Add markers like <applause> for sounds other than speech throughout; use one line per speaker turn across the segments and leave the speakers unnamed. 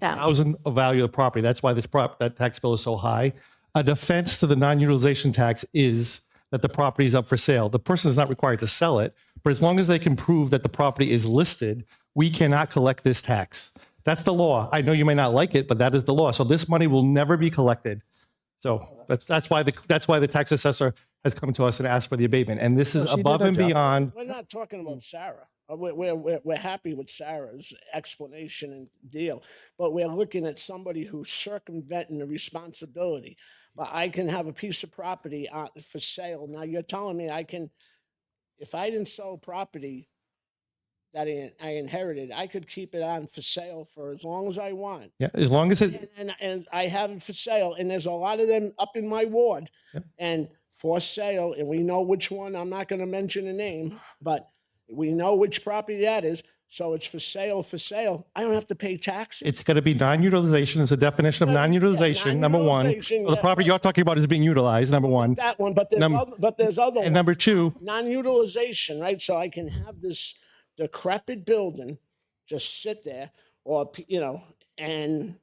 That-
thousand of value of the property. That's why this prop, that tax bill is so high. A defense to the non-utilization tax is that the property is up for sale. The person is not required to sell it, but as long as they can prove that the property is listed, we cannot collect this tax. That's the law. I know you may not like it, but that is the law. So this money will never be collected. So that's, that's why the, that's why the tax assessor has come to us and asked for the abatement. And this is above and beyond
We're not talking about Sarah. Uh, We're, we're, we're, we're happy with Sarah's explanation and deal, but we're looking at somebody who's circumventing the responsibility. But I can have a piece of property uh, for sale. Now you're telling me I can, if I didn't sell property that I- I inherited, I could keep it on for sale for as long as I want.
Yeah, as long as it,
and, and, and I have it for sale, and there's a lot of them up in my ward, and for sale, and we know which one. I'm not going to mention a name, but we know which property that is. So it's for sale, for sale. I don't have to pay taxes.
it's going to be non-utilization. It's a definition of non-utilization. Number one,
non-utilization,
the
yeah.
property you're talking about is being utilized. Number one,
that one, but there's
Num-
other, but there's other
and
ones.
number two,
non-utilization, right? So I can have this decrepit building just sit there, or p- you know, and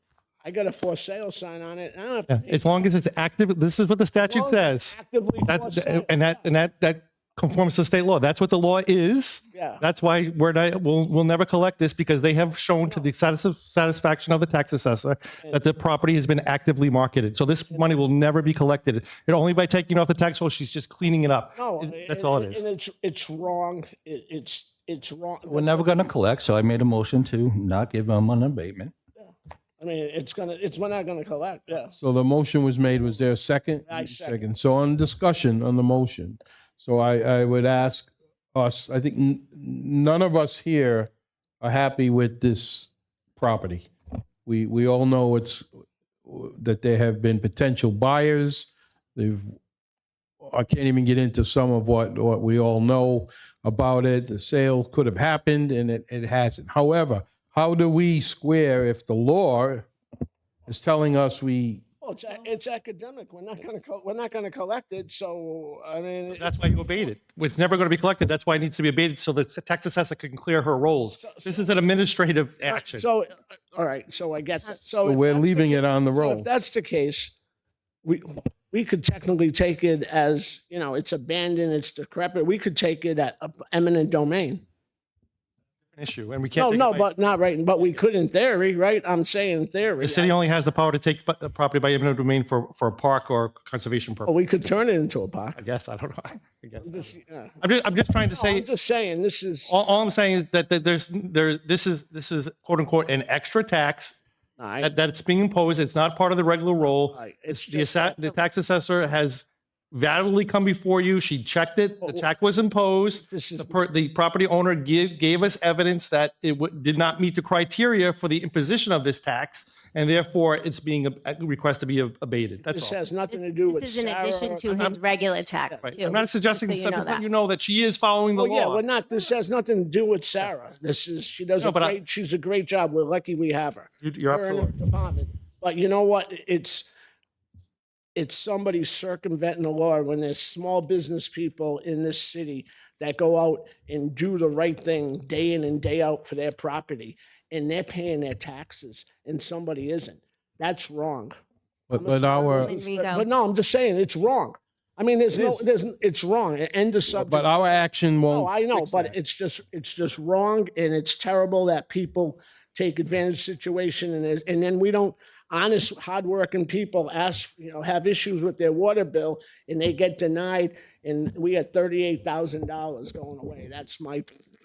I got a for sale sign on it. and I don't have to pay
as long as it's active, this is what the statute
long as it's
says.
actively for
That's
sale.
and that and that that conforms to state law. That's what the law is.
Yeah.
That's why we're not. We'll we'll never collect this because they have shown to the satisf- satisfaction of the tax assessor that the property has been actively marketed. So this money will never be collected. And only by taking it off the tax roll, she's just cleaning it up.
No,
That's
and-
all
and-
it is.
And it's it's wrong. It, it's it's wrong.
We're never going to collect, so I made a motion to not give them an abatement.
I mean, it's gonna. It's we're not gonna collect. Yeah.
So the motion was made, was there a second?
I second.
So on discussion on the motion, so I, I would ask us, I think n- none of us here are happy with this property. We, we all know it's, that there have been potential buyers. They've, I can't even get into some of what, what we all know about it. The sale could have happened and it, it hasn't. However, how do we square if the law is telling us we
Well, Oh, it's a- it's academic. We're not gonna co- we're not gonna collect it. So I mean, it-
That's why you abate it. It's never going to be collected. That's why it needs to be abated so the tax assessor can clear her roles. This is an administrative action.
so all right. So I get that. So
But
Oh, if
we're
that's the
leaving it on the
So if
roll.
that's the case, we, we could technically take it as, you know, it's abandoned, it's decrepit. We could take it at a- eminent domain.
Issue, and we can't.
No,
take it
no,
by-
but not right, but we could in theory, right? I'm saying in theory.
The city only has the power to take bu- the property by eminent domain for, for a park or conservation
But
purpose.
we could turn it into a
I
park.
guess, I don't know. <laughs> I guess.
This- yeah.
I'm just, I'm just trying to
Oh, No, I'm
say,
just saying, this is,
all, all I'm saying is that that there's, there, this is, this is quote unquote, an extra tax
I-
that, that's being imposed. It's not part of the regular role.
I- it's
The
just,
assa- the tax assessor has validly come before you. She checked it. The check was imposed.
Oh, This is-
The per, the property owner give, gave us evidence that it w- did not meet the criteria for the imposition of this tax. And therefore it's being, a request to be ab- abated.
this
That's all.
has nothing to do with
This is in addition
Sarah.
to his regular tax
Right.
too.
I'm not suggesting,
so you
that,
know
but
that.
you know that she is following the
Oh, yeah,
law.
we're not, this has nothing to do with Sarah. This is, she does
No,
a
but I-
great, she's a great job. We're lucky we have her.
You- You're
her in her
absolutely.
department. But you know what? It's it's somebody circumventing the law when there's small business people in this city that go out and do the right thing day in and day out for their property and they're paying their taxes and somebody isn't. That's wrong.
But, but our,
Councilman
But,
Rigo.
but no, I'm just saying it's wrong. I mean, there's
It
no,
is.
there's, n- it's wrong. E, End of subject.
but our action won't.
No, I know,
fix
but
that.
it's just, it's just wrong and it's terrible that people take advantage of the situation and, there's- and then we don't, honest, hardworking people ask, you know, have issues with their water bill and they get denied and we had thirty-eight thousand dollars going away. That's my,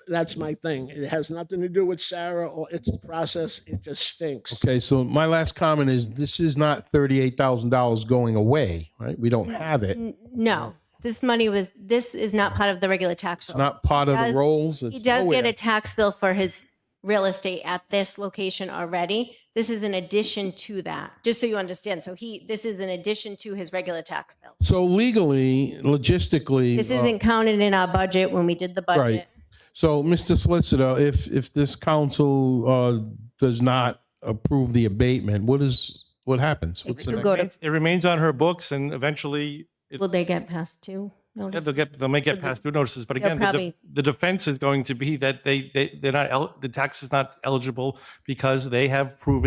that's my thing. It has nothing to do with Sarah or it's the process. It just stinks.
Okay, so my last comment is this is not thirty-eight thousand dollars going away, right? We don't have it. It's
No, this money was, this is not part of the regular tax roll.
not part of the
does-
rolls. It's
He does
nowhere.
get a tax bill for his real estate at this location already. This is an addition to that, just so you understand. So he, this is an addition to his regular tax bill.
So legally, logistically.
This
uh,
isn't counted in our budget when we did the budget.
Right. So, Mr. Solicitor, if, if this council, uh, does not approve the abatement, what is, what happens? What's the
Could
next?
go to,
It remains on her books and eventually it
will they get past two
Yeah,
notice?
they'll get, they may get past due notices, but again, the, def-
probably-
the defense is going to be that they, they, they're not, el- the tax is not eligible because they have proven